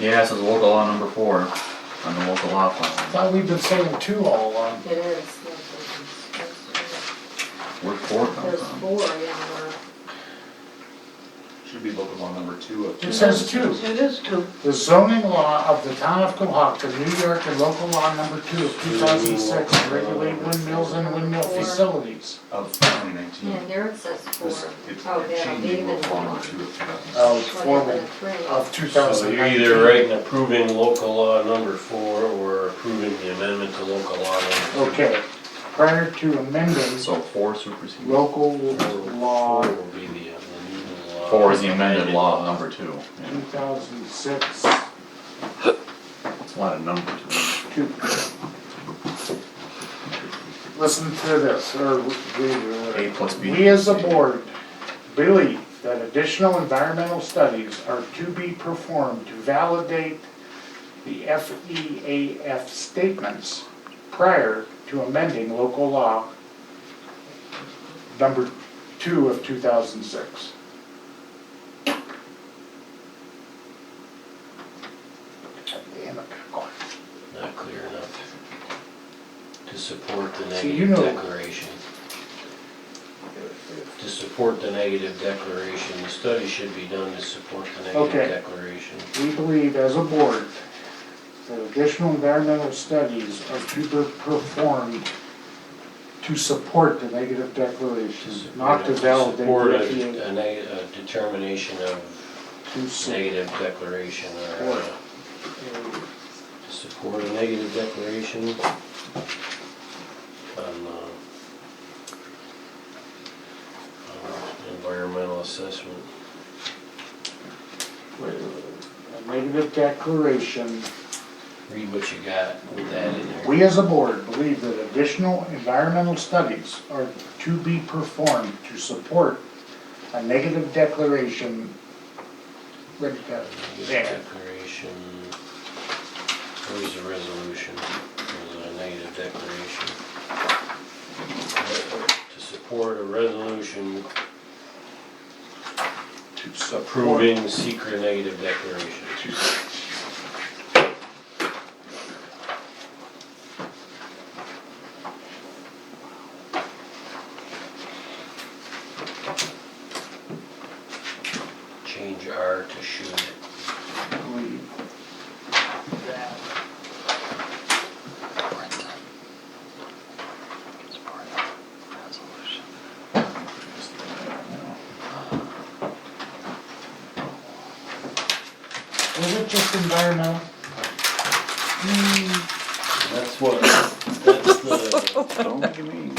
Yeah, it says local law number four on the local law plan. Thought we've been saying two all along. It is. There's Where four comes there's from. four, yeah, Should be local law number two of two. It says two. It is two. The zoning law of the town of Cohocton, New York, and local law number two of two thousand six regulate windmills and windmill facilities. Of twenty we're, nineteen. and there it says four. It's Oh, it's that'll be changing the local law number one. two of two thousand. Oh, formal of two So thousand you're nineteen. either writing approving local law number four or approving the amendment to local law number two. Okay, prior to amending So four supersedes. local Four law will be the, the new law. Four is the amended law number two. two Yeah, thousand six It's a lot of numbers. man. two. Listen to this, or read it. A plus B. We as a board believe that additional environmental studies are to be performed to validate the FEAF statements prior to amending local law number two of two thousand six. Not clear enough to support the See, you negative know- declaration. To support the negative declaration, the study should be done to support the Okay. negative declaration. We believe as a board that additional environmental studies are to be performed to support the negative declaration, Mm, not to validate Support the a, EPA. a neg- a determination of To su- negative declaration or uh, to support a negative declaration on, uh, uh, environmental assessment. A negative declaration. Read what you got with that in there. We as a board believe that additional environmental studies are to be performed to support a negative declaration. Where'd it go? Negative There. Declaration, where's the resolution? There's a negative declaration. To support a resolution To support- approving secret negative declaration. Change R to should. believe that Was it just environmental? That's what, that's the, Don't give me.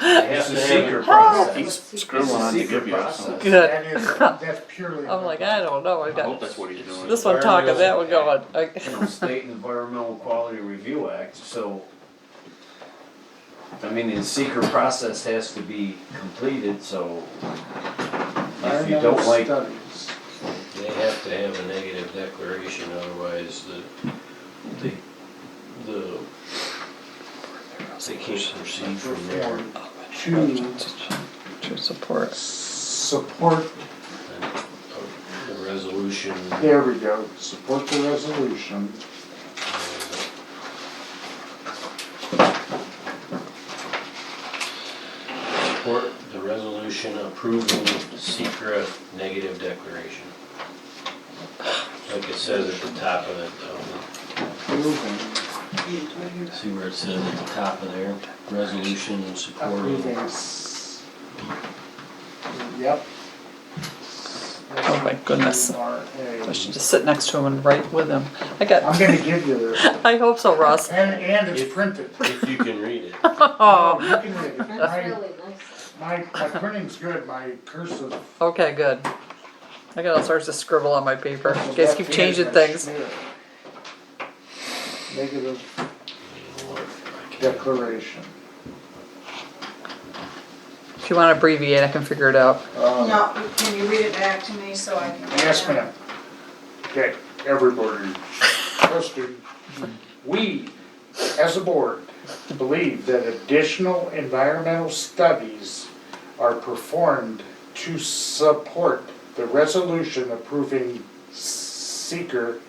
they It's have a to have secret a process. He's Scribbling on to give you something. Good. Oh That is, that's purely. I'm like, I don't know. I've I hope got that's what he's doing. this one talking, that one going. you I- know, State Environmental Quality Review Act, so. I mean, the secret process has to be completed, so. If you environmental don't like, studies. They have to have a negative declaration, otherwise the, the, the, they can't proceed from there. Perform To To support. support, And, uh, The resolution, uh, there we go, support the resolution. support the resolution approving secret negative declaration. Like it says at the top of the, of the Approving, See where it says at the top of there, resolution in support of approving. s- Yep. Oh my goodness. SRA. I should just sit next to him and write with him. I got. I'm gonna give you this, I hope so, Ross. and, and it's printed. if you can read it. Oh. You can read it. That's My, really nice. my, my printing's good, my cursive. Okay, good. I got all sorts of scribble on my paper. You guys keep changing things. Negative I can't- declaration. If you want to abbreviate, I can figure it out. Um, No, can you read it back to me so I can? Yes, ma'am. Okay, everybody, trustee, we, as a board, believe that additional environmental studies are performed to support the resolution approving seeker